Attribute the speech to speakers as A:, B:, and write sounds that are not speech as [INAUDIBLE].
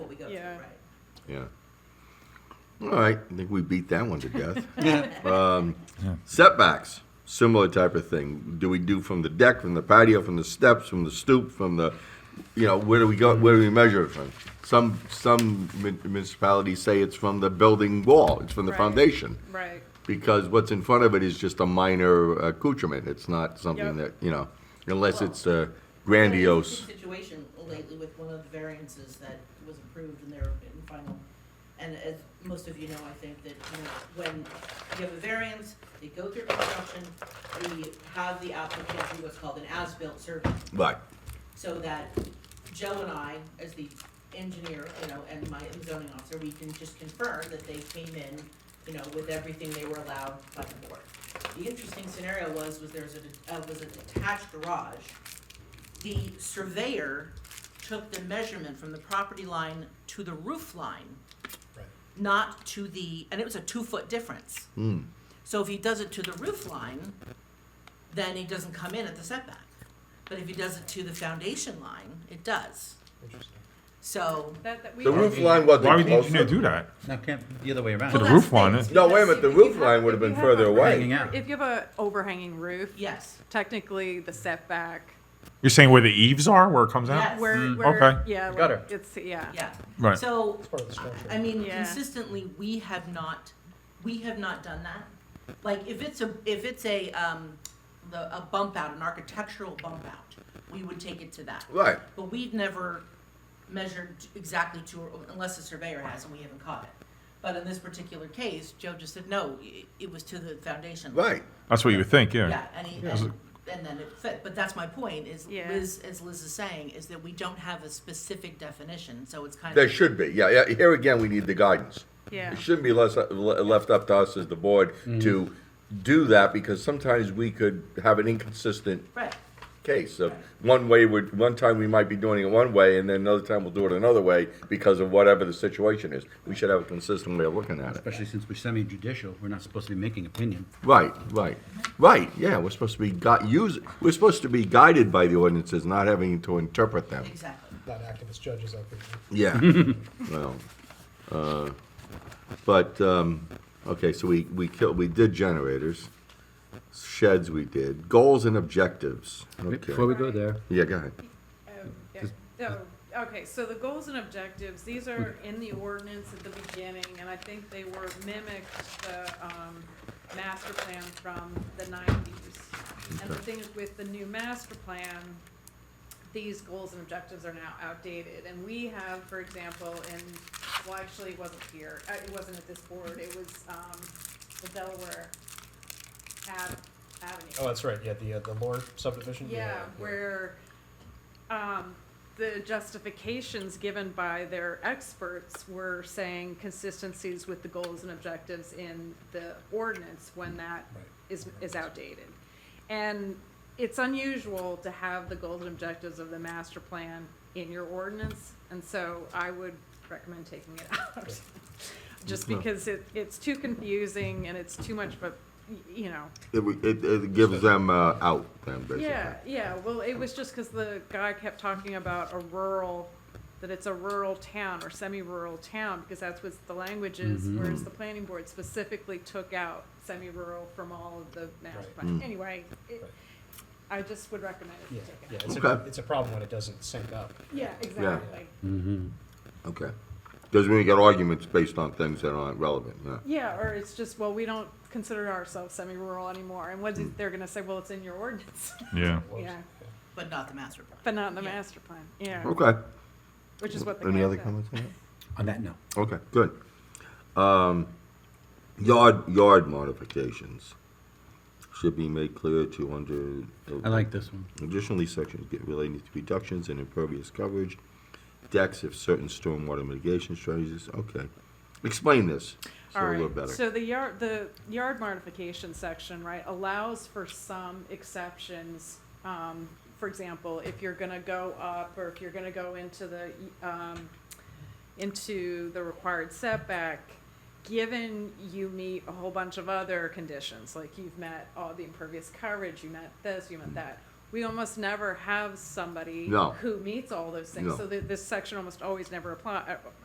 A: go through,
B: Yeah.
A: right?
C: Yeah. All right, I think we beat that one to
B: [LAUGHS]
C: death. Um, Setbacks, similar type of thing. Do we do from the deck, from the patio, from the steps, from the stoop, from the, you know, where do we go, where do we measure it from? Some, some mun- municipalities say it's from the building wall, it's from the
B: Right.
C: foundation.
B: Right.
C: Because what's in front of it is just a minor accoutrement. It's not something that,
B: Yep.
C: you know, unless
A: Well,
C: it's uh,
A: And there's a
C: grandiose.
A: Situation lately with one of the variances that was approved and they're in final. And as most of you know, I think that, you know, when you have a variance, they go through construction, we have the applicant do what's called an as-built survey.
C: Right,
A: so that Joe and I, as the engineer, you know, and my zoning officer, we can just confirm that they came in, you know, with everything they were allowed by the board. The interesting scenario was, was there's a, uh, was a detached garage. The surveyor took the measurement from the property line to the roof line, not to the, and it was a two-foot difference. So if he does it to the roof line, then he doesn't come in at the setback. But if he does it to the foundation line, it does. So,
B: That, that we.
C: the roof line wasn't
D: Why would the
C: close
D: engineer
C: enough.
D: do that?
E: No, can't, the other way around.
D: To the
A: that's
D: roof
A: the
D: line. eh?
A: thing.
D: it-
C: No, wait a minute, the
B: If you
C: roof
B: have-
C: line would have
B: if you
C: been
B: have
C: further
B: a-
C: away.
E: Hanging out.
B: If you have a overhanging roof,
A: yes,
B: technically the setback,
D: You're saying where the eaves are, where it comes out?
A: Yes.
B: where,
A: Mm.
B: where,
D: Okay.
B: yeah. like,
E: Gutter.
B: It's, yeah.
A: yeah.
D: Right.
A: So, I mean,
B: Yeah.
A: consistently, we have not, we have not done that. Like, if it's a, if it's a, um, the, a bump out, an architectural bump out, we would take it to that.
C: Right.
A: But we've never measured exactly to, unless the surveyor has and we haven't caught it. But in this particular case, Joe just said, no, it- it was to the foundation. line."
C: Right.
D: That's what you would think,
A: Yeah,
D: yeah.
A: and he, and, and then it fit, but that's my point, is
B: Yeah.
A: Liz, as Liz is saying, is that we don't have a specific definition, so it's kind of.
C: There should be, yeah, yeah, here again, we need the guidance.
B: Yeah.
C: It shouldn't be less, uh, le- left up to us as the board to do that, because sometimes we could have an inconsistent
A: Right,
C: case of one way, we're- one time we might be doing it one way, and then another time we'll do it another way, because of whatever the situation is. We should have a consistent way of looking at it.
E: Especially since we're semi-judicial, we're not supposed to be making opinion.
C: Right, right, right, yeah, we're supposed to be gui- use, we're supposed to be guided by the ordinances, not having to interpret them.
A: exactly.
F: not activist judges out there.
E: [LAUGHS]
C: Yeah. well, uh, but um, okay, so we we killed we did generators, sheds we did goals and objectives. Okay.
E: Before we go there,
C: Yeah, go ahead.
B: Um, yeah. Oh, Okay, so the goals and objectives, these are in the ordinance at the beginning, and I think they were mimicked, the, um, master plan from the nineties. And the thing is, with the new master plan, these goals and objectives are now outdated, and we have, for example, in, well, actually, it wasn't here, uh, it wasn't at this board, it was, um, the Delaware Ave- Avenue.
F: Oh, that's right. Yeah, the uh, the lore subdivision.
B: Yeah, where, um, the justifications given by their experts were saying consistencies with the goals and objectives in the ordinance when that
F: Right.
B: is, is outdated. And it's unusual to have the goals and objectives of the master plan in your ordinance, and so I would recommend taking it [LAUGHS] out. Just because it, it's too confusing and it's too much of a, y- you know,
C: It, w- it, it gives them uh, out then basically.
B: yeah, yeah, well, it was just because the guy kept talking about a rural, that it's a rural town or semi-rural town, because that's what the language is, whereas the planning board specifically took out semi-rural from all of the master
F: Right.
B: plan. Anyway, it-
F: Right.
B: I just would recommend it
F: Yeah,
B: to take
F: yeah.
B: it out.
F: It's, a,
C: Okay.
F: it's a problem when it doesn't sync up.
B: Yeah, exactly.
C: Okay. Doesn't mean you get arguments based on things that aren't relevant. Yeah.
B: Yeah, or it's just, well, we don't consider ourselves semi-rural anymore, and what is, they're gonna say, well, it's in your ordinance,
D: Yeah.
F: Whoops.
B: Yeah.
A: But not the master plan.
B: but not in the
A: Yeah.
B: master plan, yeah,
C: Okay.
B: which is what the guy
C: Oh, Any other
B: said.
C: comments? On that?
E: on that note,
B: [LAUGHS]
C: Okay, good. Um, yard yard modifications should be made clear to under. uh,
E: I like this one.
C: Additionally, sections get relating to reductions in impervious coverage, decks if certain stormwater mitigation strategies, okay. Explain this, so
B: All
C: a little
B: right.
C: better.
B: So the yard, the yard modification section, right, allows for some exceptions. Um, for example, if you're gonna go up or if you're gonna go into the, um, into the required setback, given you meet a whole bunch of other conditions, like you've met all the impervious coverage, you met this, you met that. We almost never have somebody
C: No.
B: who meets all those things,
C: No.
B: so th- this section almost always never apply, uh,